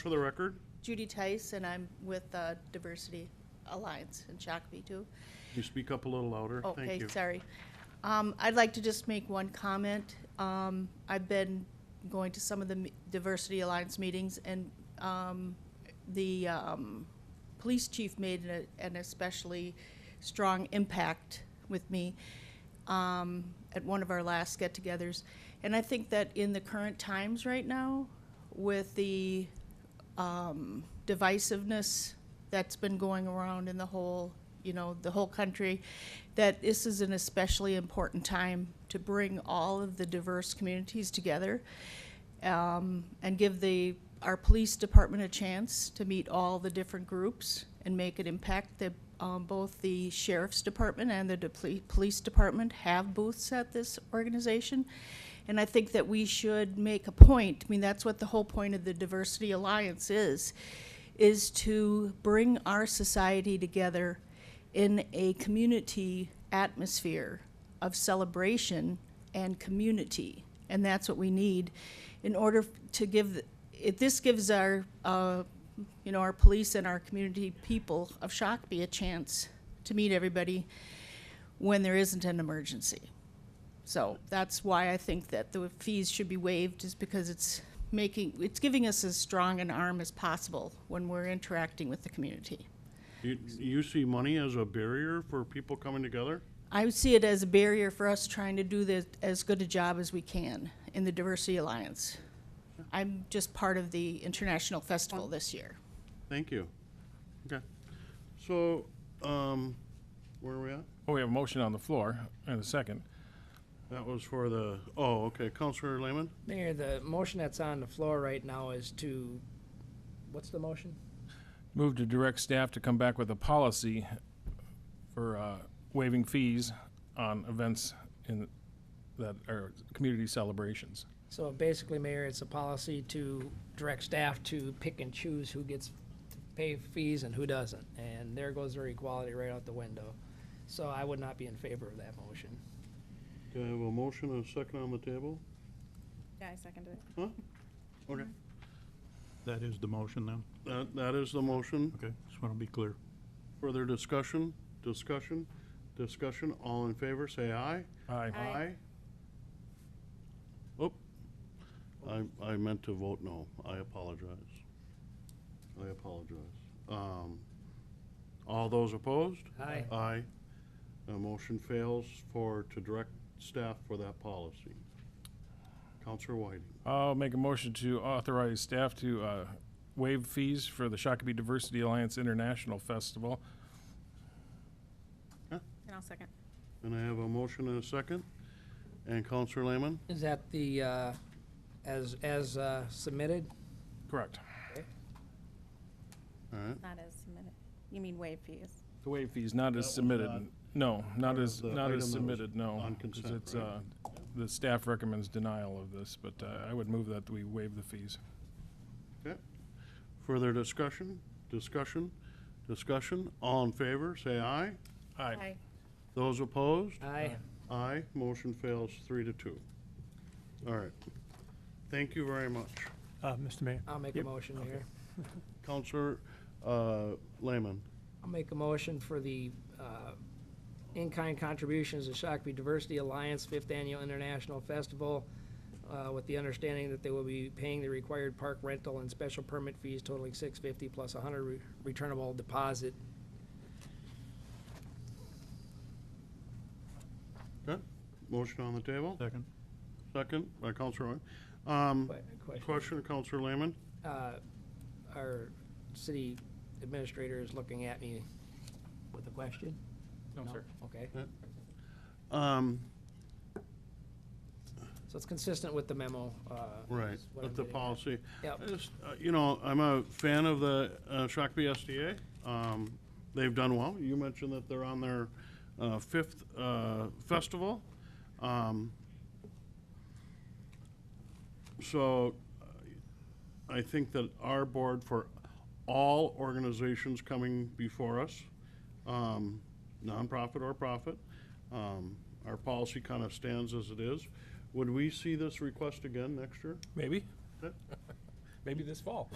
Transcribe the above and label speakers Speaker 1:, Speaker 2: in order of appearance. Speaker 1: For the record,
Speaker 2: Judy Tice, and I'm with uh, Diversity Alliance in Shakopee, too.
Speaker 1: can you speak up a little louder? Thank
Speaker 2: Okay,
Speaker 1: you.
Speaker 2: sorry. Um, I'd like to just make one comment. Um, I've been going to some of the me- Diversity Alliance meetings, and um, the um, police chief made an- an especially strong impact with me um, at one of our last get-togethers. And I think that in the current times right now, with the um, divisiveness that's been going around in the whole, you know, the whole country, that this is an especially important time to bring all of the diverse communities together um, and give the, our police department a chance to meet all the different groups and make an impact. The, um, both the sheriff's department and the deple- police department have booths at this organization. And I think that we should make a point, I mean, that's what the whole point of the Diversity Alliance is, is to bring our society together in a community atmosphere of celebration and community. And that's what we need in order to give, it, this gives our, uh, you know, our police and our community people of Shakopee a chance to meet everybody when there isn't an emergency. So that's why I think that the fees should be waived, is because it's making, it's giving us as strong an arm as possible when we're interacting with the community.
Speaker 1: You- You see money as a barrier for people coming together?
Speaker 2: I would see it as a barrier for us trying to do the, as good a job as we can in the Diversity Alliance. I'm just part of the International Festival this year.
Speaker 1: Thank you. Okay. So, um, where are we at?
Speaker 3: Well, Oh, we have a motion on the floor and a second.
Speaker 1: That was for the, oh, okay, Counselor Lehman?
Speaker 4: Mayor, the motion that's on the floor right now is to, what's the motion?
Speaker 3: Move to direct staff to come back with a policy for uh, waiving fees on events in, that are community celebrations.
Speaker 4: So basically, Mayor, it's a policy to direct staff to pick and choose who gets to pay fees and who doesn't. And there goes their equality right out the window. So I would not be in favor of that motion.
Speaker 1: Do I have a motion and a second on the table?
Speaker 5: Yeah, I seconded it.
Speaker 1: Okay.
Speaker 6: That is the motion then?
Speaker 1: That, that is the motion.
Speaker 6: Okay, just want to be clear.
Speaker 1: Further discussion, discussion, discussion. All in favor, say aye.
Speaker 3: Aye.
Speaker 5: Aye.
Speaker 1: Oop. I, I meant to vote no. I apologize. I apologize. Um, all those opposed?
Speaker 4: Aye.
Speaker 1: Aye. The motion fails for, to direct staff for that policy. Counselor Whiting,
Speaker 3: I'll make a motion to authorize staff to uh, waive fees for the Shakopee Diversity Alliance International Festival.
Speaker 5: And I'll second.
Speaker 1: and I have a motion and a second. And Counselor Lehman?
Speaker 4: Is that the, uh, as, as uh, submitted?
Speaker 3: Correct.
Speaker 1: All right.
Speaker 5: Not as submitted. You mean waive fees?
Speaker 3: To waive fees, not
Speaker 1: That
Speaker 3: as
Speaker 1: was
Speaker 3: submitted.
Speaker 1: not
Speaker 3: No, not
Speaker 1: part
Speaker 3: as,
Speaker 1: of the
Speaker 3: not
Speaker 1: item that
Speaker 3: as
Speaker 1: was
Speaker 3: submitted, no.
Speaker 1: on
Speaker 3: 'cause
Speaker 1: consent,
Speaker 3: it's,
Speaker 1: right?
Speaker 3: uh, The staff recommends denial of this, but uh, I would move that we waive the fees.
Speaker 1: Okay. Further discussion, discussion, discussion. All in favor, say aye.
Speaker 3: Aye.
Speaker 1: Those opposed?
Speaker 4: Aye.
Speaker 1: Aye, motion fails three to two. All right. Thank you very much.
Speaker 7: Uh, Mr. Mayor,
Speaker 4: I'll make a
Speaker 7: Yep.
Speaker 4: motion, Mayor.
Speaker 1: Counselor uh, Lehman,
Speaker 4: I'll make a motion for the uh, in-kind contributions to Shakopee Diversity Alliance Fifth Annual International Festival uh, with the understanding that they will be paying the required park rental and special permit fees totaling six fifty plus a hundred re- returnable deposit.
Speaker 1: motion on the table,
Speaker 6: Second?
Speaker 1: second by Counselor Roy. Um,
Speaker 4: Que-
Speaker 1: Question, Counselor Lehman?
Speaker 4: Uh, Our city administrator is looking at me with a question?
Speaker 3: No, sir.
Speaker 4: Okay,
Speaker 1: Um,
Speaker 4: so it's consistent with the memo. uh,
Speaker 1: Right,
Speaker 4: is what I'm
Speaker 1: with the
Speaker 4: getting at.
Speaker 1: policy.
Speaker 4: Yep.
Speaker 1: I just, uh, You know, I'm a fan of the uh, Shakopee SDA. Um, They've done well. You mentioned that they're on their uh, fifth uh, festival. Um, So uh, I think that our board for all organizations coming before us, um, nonprofit or profit, um, our policy kind of stands as it is. Would we see this request again next year?
Speaker 3: Maybe? Maybe this fall.